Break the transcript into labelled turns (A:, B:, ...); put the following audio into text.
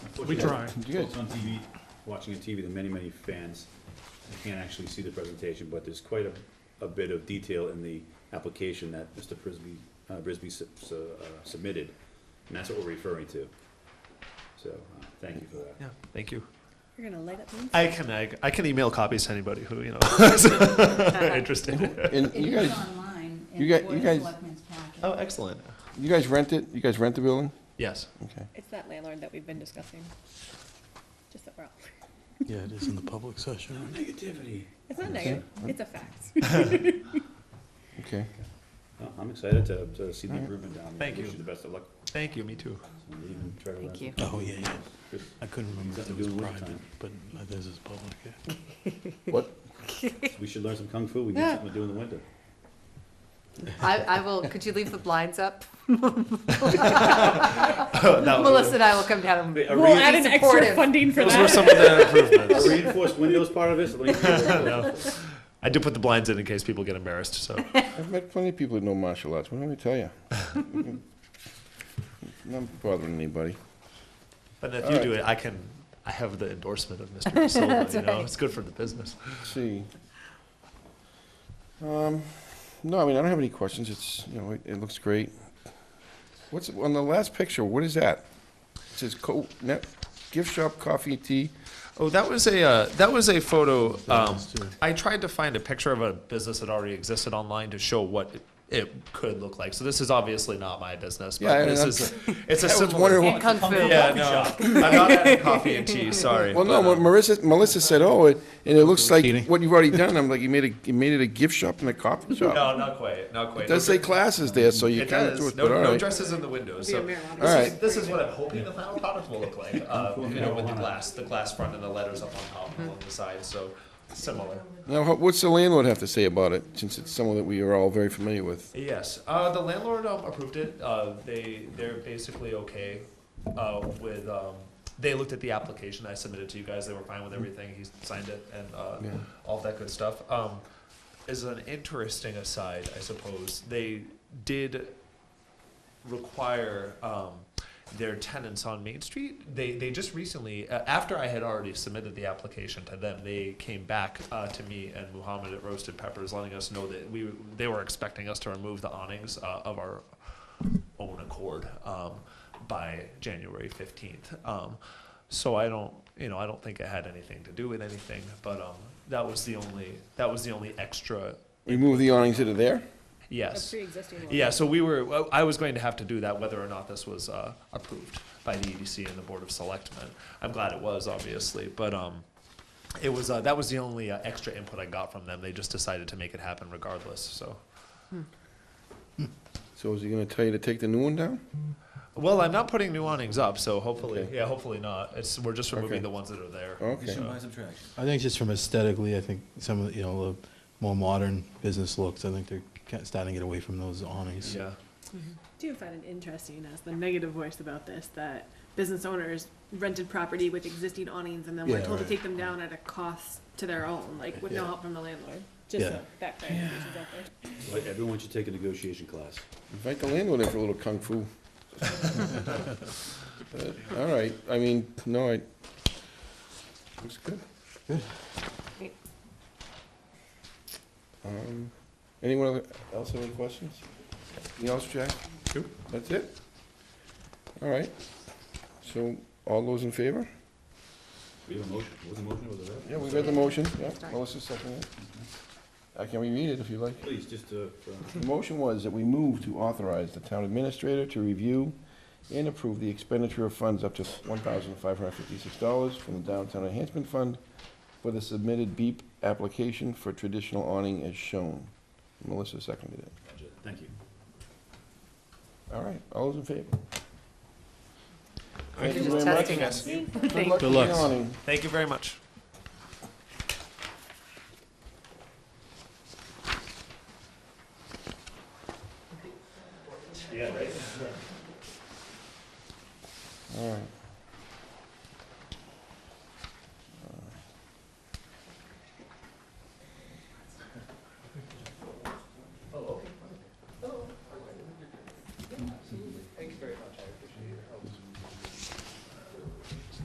A: We try.
B: Good. On TV, watching on TV, there are many, many fans that can't actually see the presentation, but there's quite a, a bit of detail in the application that Mr. Frisbee, uh, Brisby sub- su- uh, submitted, and that's what we're referring to. So, uh, thank you for that.
C: Yeah, thank you.
D: You're gonna light up the
C: I can I, I can email copies to anybody who you know is interested.
E: And
F: It
E: you
F: is
E: guys,
F: online in
E: you
F: the
E: got-
F: Board
E: you
F: of
E: guys-
F: Selectmen's packet.
C: Oh, excellent.
E: you guys rent it? You guys rent the building?
C: Yes.
E: Okay.
D: It's that landlord that we've been discussing. Just that we're all,
A: Yeah, it is in the public session.
B: Negativity.
D: it's not negative, it's a fact.
E: Okay.
B: Well, I'm excited to, to see the
E: Alright.
B: improvement down there.
C: Thank
B: Wish
C: you.
B: the best of luck.
C: Thank you. Me too.
F: Thank you.
A: Oh, yeah, yeah. I couldn't remember
B: Got
A: if
B: to
A: it was
B: do with
A: private,
B: time.
A: but this is public, yeah.
E: What?
B: We should learn some kung fu, we need something to do in the winter.
G: I, I will, could you leave the blinds up?
C: that
G: Melissa and I will come down
B: Wait,
G: and
B: are
D: We'll
B: we-
G: be
D: add an extra
G: supportive.
D: funding for
C: those were
D: that.
C: some of the improvements.
B: Are reinforced windows part of this?
C: No. I do put the blinds in in case people get embarrassed. So
E: I've met plenty of people that know martial arts. What do I tell you? Not bothering anybody.
C: but if
E: All
C: you
E: right.
C: do it, I can. I have the endorsement of Mr. Silva. you know, it's good for the business.
E: Let's see. Um, no, I mean, I don't have any questions. It's, you know, it, it looks great. What's, on the last picture, what is that? It says co, net, gift shop, coffee, tea.
C: Oh, that was a uh, that was a photo. Um, I tried to find a picture of a business that already existed online to show what it, it could look like. So this is obviously not my business, but
E: Yeah, I-
C: this
E: I'm-
C: is it's a
E: was
C: similar.
E: wondering
G: And kung fu.
C: yeah, no, I'm not adding coffee and tea. Sorry.
E: Well, no,
C: but,
E: what
C: um,
E: Marissa, Melissa said, oh, it, and it looks
A: Teeny.
E: like what you've already done. I'm like, you made a, you made it a gift shop and a coffee shop.
C: no, not quite, not quite.
E: It does
C: No,
E: say classes there, so you
C: It
E: kind of do it,
C: does.
E: but
C: No,
E: all
C: no
E: right.
C: dresses in the windows. So this,
E: All
C: Is,
E: right.
C: this is what I'm hoping the final product will look like. Uh, you know, with the glass, the glass front and the letters up on top and along the side. So similar.
E: Now, ho- what's the landlord have to say about it, since it's someone that we are all very familiar with?
C: Yes, uh, the landlord um, approved it. Uh, they they're basically okay uh, with. Um, they looked at the application I submitted to you guys. They were fine with everything. He signed it and uh,
E: Yeah.
C: all that good stuff. Um, as an interesting aside, I suppose they did require um, their tenants on Main Street. They, they just recently, uh, after I had already submitted the application to them, they came back uh, to me and Muhammad at Roasted Peppers, letting us know that we they were expecting us to remove the awnings uh, of our own accord um, by January fifteenth. Um, so I don't, you know, I don't think it had anything to do with anything, but um, that was the only that was the only extra.
E: Remove the awnings that are there?
D: A
C: Yes.
D: pre-existing one.
C: Yeah, so we were, well, I was going to have to do that whether or not this was uh, approved by the EDC and the Board of Selectmen. I'm glad it was, obviously, but um, it was, uh, that was the only uh, extra input I got from them. They just decided to make it happen regardless, so.
E: So is he gonna tell you to take the new one down?
C: Well, I'm not putting new awnings up, so hopefully,
E: Okay.
C: yeah, hopefully not. It's, we're just
E: Okay.
C: removing the ones that are there.
E: Okay.
C: So-
A: I think just from aesthetically, I think some of, the you know, the more modern business looks, I think they're ca- starting to get away from those awnings.
C: Yeah,
D: do find it interesting as the negative voice about this that business owners rented property with existing awnings and then were
A: Yeah,
D: told
A: right.
D: to take them down at a cost to their own, like with no help from the landlord. Just
A: Yeah.
D: that clarification's out there.
B: Like, Everyone should take a negotiation class.
E: Invite the landlord in for a little kung fu. But, All right, I mean, no, I, looks good.
D: Great.
E: Um, Anyone other- else have any questions? Anything else, Jack?
C: Nope.
E: That's it? All right, so all those in favor?
B: We have a motion, was the motion, was it?
E: Yeah, we read the motion, yeah, Melissa seconded it. I can reread it if you like.
B: Please, just, uh, for-
E: The motion was that we move to authorize the town administrator to review and approve the expenditure of funds up to one thousand five hundred fifty-six dollars from the Downtown Enhancement Fund for the submitted BEEP application for traditional awning as shown. Melissa seconded it.
B: thank you.
E: All right, all those in favor? Thank
G: You're
E: you
G: just
E: very much.
G: testing us.
E: Good luck
A: Good
E: with the
A: luck.
E: awning.
C: thank you very much.
E: All right.